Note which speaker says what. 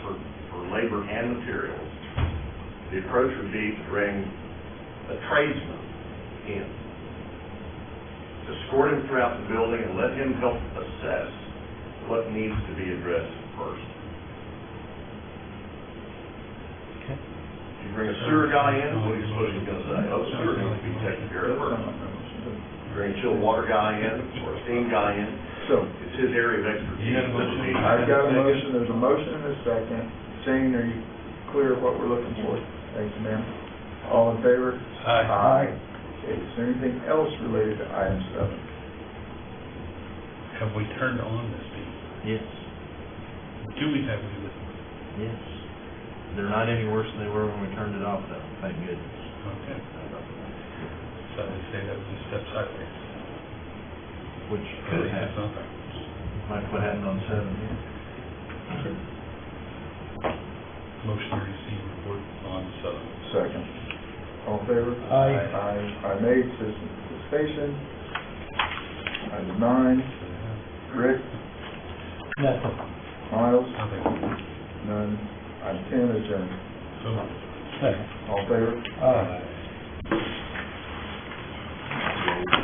Speaker 1: labor and materials, the approach would be to bring a tradesman in, to escort him throughout the building and let him help assess what needs to be addressed first.
Speaker 2: Okay.
Speaker 1: You bring a sewer guy in, what are you supposed to gonna say? Oh, sewer needs to be taken care of first. You Bring a chilled water guy in, or a steam guy in,
Speaker 3: So,
Speaker 1: it's his area of expertise.
Speaker 4: You have a motion?
Speaker 3: I've got a motion, there's a motion and a second. Shane, are you clear what we're looking for? Thank you, ma'am. All in favor? Okay, is there anything else related to item seven?
Speaker 4: Have we turned on this thing?
Speaker 2: Yes,
Speaker 4: Do we have any listeners?
Speaker 2: yes. They're not any worse than they were when we turned it off though, thank goodness.
Speaker 4: Okay. So they say that was a step sideways.
Speaker 2: Which
Speaker 4: At
Speaker 2: could
Speaker 4: least it's
Speaker 2: happen,
Speaker 4: on there.
Speaker 2: like what happened on seven, yeah.
Speaker 4: Motion to receive report on seven.
Speaker 3: Second. All in favor?
Speaker 4: Aye.
Speaker 3: Aye. Item eight, citizen participation. Item nine, Rick? Miles?
Speaker 4: Nothing.
Speaker 3: None. Item ten, adjourned.
Speaker 4: So moved.
Speaker 3: All in favor?
Speaker 4: Aye.